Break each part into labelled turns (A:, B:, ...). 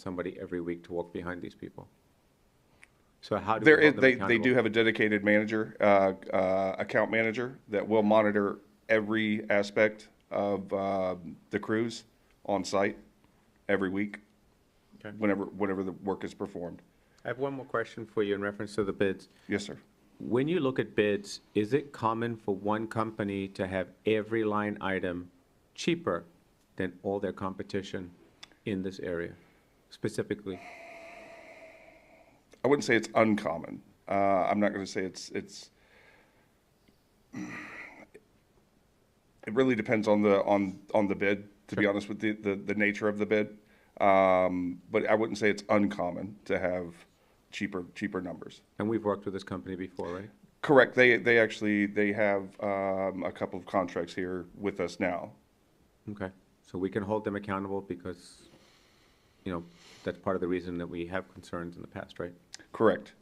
A: somebody every week to walk behind these people. So how do
B: There
A: we
B: is,
A: hold them
B: they, they do
A: accountable?
B: have a dedicated manager, uh, uh, account manager that will monitor every aspect of, uh, the crews on site every week.
A: Okay.
B: Whenever, whenever the work is performed.
A: I have one more question for you in reference to the bids.
B: Yes, sir.
A: When you look at bids, is it common for one company to have every line item cheaper than all their competition in this area specifically?
B: I wouldn't say it's uncommon. Uh, I'm not going to say it's it's. It really depends on the on on the bid. To be honest with the, the the nature of the bid, um, but I wouldn't say it's uncommon to have cheaper cheaper numbers.
A: And we've worked with this company before, right?
B: Correct. They they actually they have um, a couple of contracts here with us now.
A: Okay, so we can hold them accountable because, you know, that's part of the reason that we have concerns in the past, right?
B: Correct.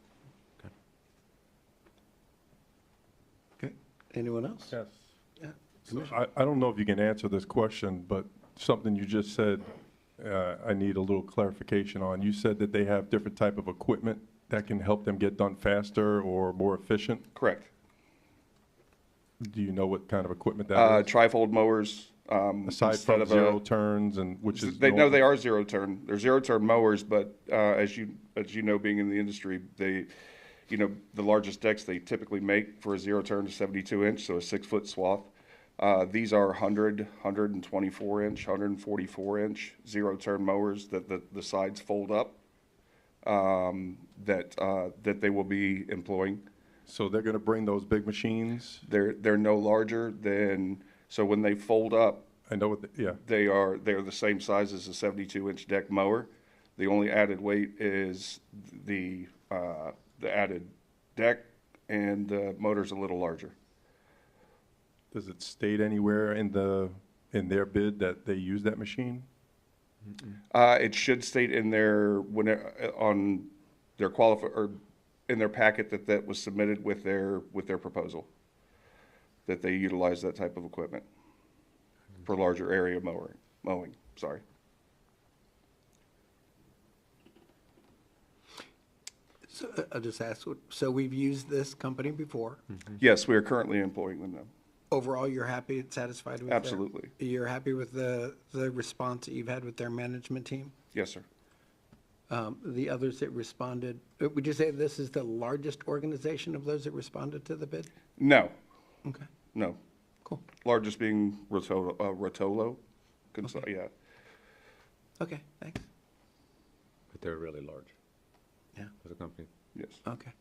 C: Okay, anyone else?
D: Yes.
C: Yeah.
D: So I, I don't know if you can answer this question, but something you just said, uh, I need a little clarification on. You said that they have different type of equipment that can help them get done faster or more efficient.
B: Correct.
D: Do you know what kind of equipment
B: Uh,
D: that is?
B: trifold mowers. Um,
D: Aside
B: instead
D: from
B: of a-
D: zero turns and, which is.
B: They know
D: normal.
B: they are zero turn. They're zero turn mowers, but uh, as you as you know, being in the industry, they, you know, the largest decks they typically make for a zero turn is 72 inch, so a six foot swath. Uh, these are 100, 124 inch, 144 inch zero turn mowers that the, the sides fold up. Um, that uh, that they will be employing.
D: So they're gonna bring those big machines?
B: They're they're no larger than so when they fold up,
D: I know what, the- yeah.
B: They are, they are the same size as a seventy-two inch deck mower. The only added weight is the, uh, the added deck and the motor's a little larger.
D: Does it state anywhere in the, in their bid that they use that machine?
B: Uh, it should state in their, when, it- on their qualify, or in their packet that that was submitted with their, with their proposal. That they utilize that type of equipment for larger area mower, mowing, sorry.
C: So uh, I'll just ask, what- so we've used this company before.
B: Yes, we are currently employing them now.
C: Overall, you're happy and satisfied with their?
B: Absolutely.
C: You're happy with the, the response that you've had with their management team?
B: Yes, sir.
C: Um, The others that responded, uh, would you say this is the largest organization of those that responded to the bid?
B: No,
C: Okay,
B: no,
C: cool.
B: Largest being Rotolo, uh, Rotolo, Cons- yeah.
C: Okay, thanks.
A: But they're really large
C: Yeah,
A: as a company.
B: Yes.
C: okay.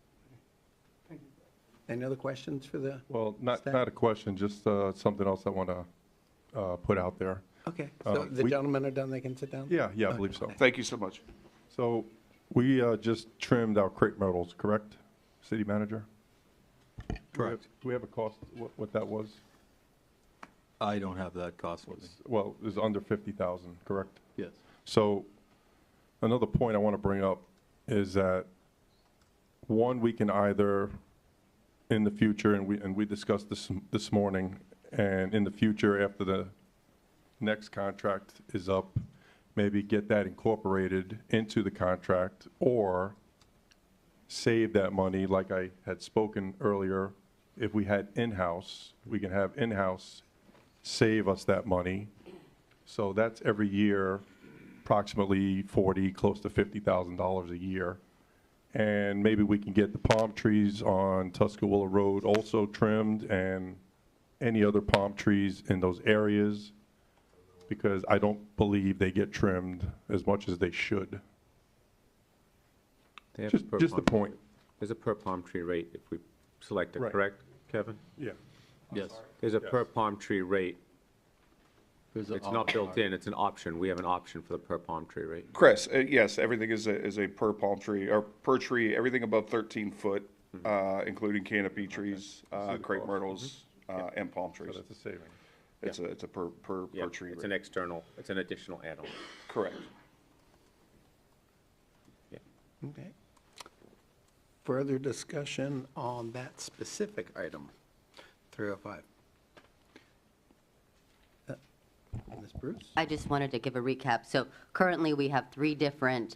C: Any other questions for the,
D: Well, not,
C: Staff?
D: not a question, just uh, something else I want to put out there.
C: okay, so
D: Uh,
C: the
D: we-
C: gentlemen are done, they can sit down?
D: Yeah, yeah, I believe so.
B: Thank you so much.
D: So we uh, just trimmed our crepe myrtles, correct, city manager? Do we have-
E: Correct.
D: Do we have a cost, what what that was?
E: I don't have that cost with me.
D: Well, it was under 50,000, correct?
E: Yes.
D: So another point I want to bring up is that, one, we can either, in the future, and we, and we discussed this, this morning, and in the future, after the next contract is up, maybe get that incorporated into the contract, or save that money, like I had spoken earlier, if we had in-house, we can have in-house save us that money. So that's every year, approximately 40, close to $50,000 a year. And maybe we can get the palm trees on Tuscarora Road also trimmed and any other palm trees in those areas, because I don't believe they get trimmed as much as they should.
A: They have
D: Just,
A: per
D: just a
A: palm tree.
D: point.
A: There's a per palm tree rate if we select it,
D: Right.
A: correct, Kevin?
D: Yeah.
E: Yes.
A: There's a
D: Yes.
A: per palm tree rate.
E: There's a-
A: It's not built in, it's an option. We have an option for the per palm tree rate.
B: Chris, uh, yes, everything is a, is a per palm tree or per tree, everything above thirteen foot,
A: Mm-hmm.
B: uh, including canopy trees, uh, crepe myrtles, uh, and palm trees.
D: So that's a saving.
B: It's a, it's a per, per,
A: Mm-hmm. Yeah,
B: per tree
A: It's an
B: rate.
A: external, it's an additional add-on.
B: Correct.
C: Okay. Further discussion on that specific item, 305. Uh, Ms. Bruce?
F: I just wanted to give a recap. So currently, we have three different